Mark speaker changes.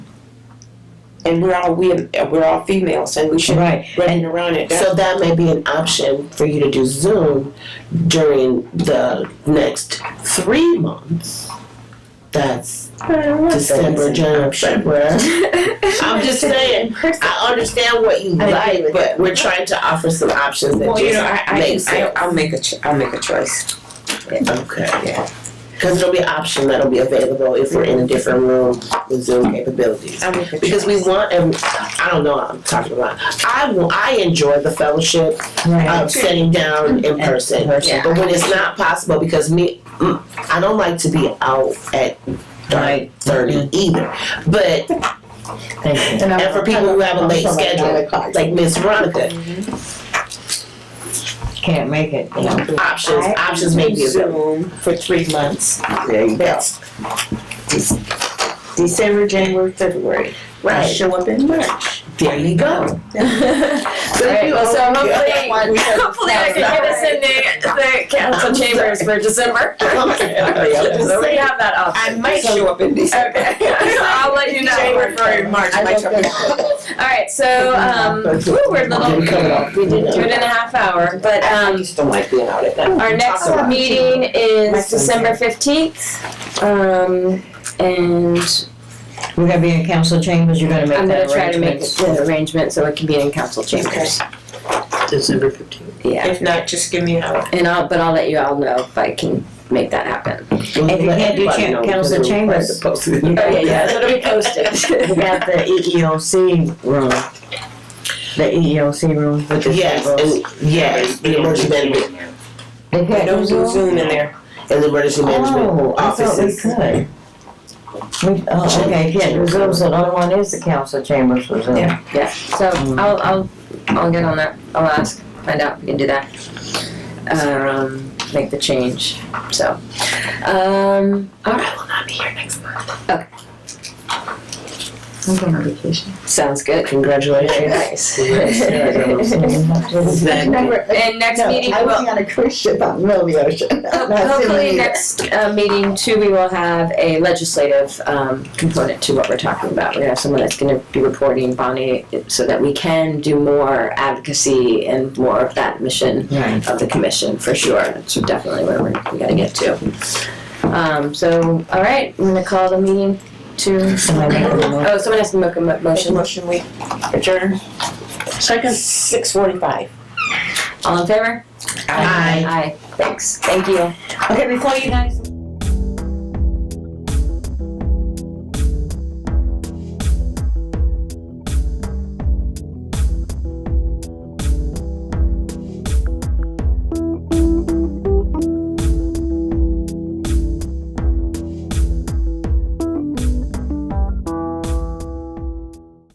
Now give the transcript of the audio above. Speaker 1: and we're all we we're all females, and we should be
Speaker 2: Right.
Speaker 1: running around it.
Speaker 3: So that may be an option for you to do Zoom during the next three months. That's December, January, February. I'm just saying, I understand what you like, but we're trying to offer some options that
Speaker 1: well, you know,
Speaker 3: just,
Speaker 1: I, I,
Speaker 3: makes
Speaker 1: I
Speaker 3: sense.
Speaker 1: I'll make a cho- I'll make a choice. Yeah.
Speaker 3: okay. Cause it'll be an option that'll be available if we're in a different room with Zoom capabilities.
Speaker 1: I'll make a
Speaker 3: because we want and I don't know what I'm talking about. I will, I enjoy the fellowship
Speaker 2: Right.
Speaker 3: of sitting down in person,
Speaker 2: person.
Speaker 3: but when it's not possible because me, mm, I don't like to be out at
Speaker 2: Right. Mm-hmm.
Speaker 3: thirty either. But
Speaker 2: Thank you.
Speaker 3: and for people who have a late schedule, like Miss Veronica,
Speaker 2: Can't make it. you know.
Speaker 3: options options may be available.
Speaker 1: Zoom for three months.
Speaker 3: There you go.
Speaker 1: That's Dec- December, January, February. I
Speaker 3: Right
Speaker 1: show up in March.
Speaker 3: there you go.
Speaker 4: So hopefully, hopefully I can get us in the, the council chambers for December. So we have that option.
Speaker 1: I might show up in December.
Speaker 4: Okay, so I'll let you know.
Speaker 1: January, February, March. I might show up.
Speaker 4: All right, so, um, woo, we're a little, two
Speaker 3: We did it.
Speaker 4: and a half hour, but,
Speaker 1: I
Speaker 4: um,
Speaker 1: just don't like being out at that.
Speaker 4: our next meeting is December fifteenth. Um, and
Speaker 2: We're gonna be in council chambers, you're gonna
Speaker 4: I'm
Speaker 2: make
Speaker 4: gonna
Speaker 2: that
Speaker 4: try to make
Speaker 2: arrangement.
Speaker 4: an arrangement so it can be in council chambers.
Speaker 3: December fifteenth.
Speaker 4: Yeah,
Speaker 1: If not, just give me an hour.
Speaker 4: and I'll, but I'll let you all know if I can make that happen.
Speaker 2: If you can't do cha- council chambers.
Speaker 4: Oh, yeah, yeah, so it'll be posted.
Speaker 2: We got the E EEOC room. The E EEOC room with the
Speaker 3: Yes,
Speaker 2: tables.
Speaker 3: and yes, the emergency management
Speaker 2: They
Speaker 1: I
Speaker 2: can't
Speaker 1: don't do
Speaker 2: Zoom?
Speaker 1: Zoom in there.
Speaker 3: and the emergency
Speaker 2: Oh,
Speaker 3: management
Speaker 2: I thought we
Speaker 3: offices.
Speaker 2: could. We, oh, okay, can't do Zoom, so the other one is the council chambers for Zoom.
Speaker 1: Yeah.
Speaker 4: Yeah, so I'll, I'll, I'll get on that, I'll ask, find out if we can do that. Um, make the change, so, um, alright,
Speaker 3: will not be here next month.
Speaker 2: I'm going on vacation.
Speaker 4: sounds good. Very
Speaker 3: Congratulations.
Speaker 4: Nice.
Speaker 5: Exactly.
Speaker 4: And next
Speaker 5: No,
Speaker 4: meeting,
Speaker 5: I was
Speaker 4: will
Speaker 5: on a cruise ship out in the middle of the ocean.
Speaker 4: hopefully next, uh, meeting too, we will have a legislative, um, component to what we're talking about. We're gonna have someone that's gonna be reporting, Bonnie, so that we can do more advocacy and more of that mission
Speaker 2: Right.
Speaker 4: of the commission for sure. That's definitely where we're, we gotta get to. Um, so, all right, I'm gonna call the meeting to,
Speaker 2: Somebody make a motion.
Speaker 4: oh, someone has to make a mo- motion.
Speaker 1: Motion we adjourn. Second. Six forty-five.
Speaker 4: All in favor?
Speaker 3: Aye.
Speaker 4: Aye, thanks. Thank you.
Speaker 1: Okay, before you guys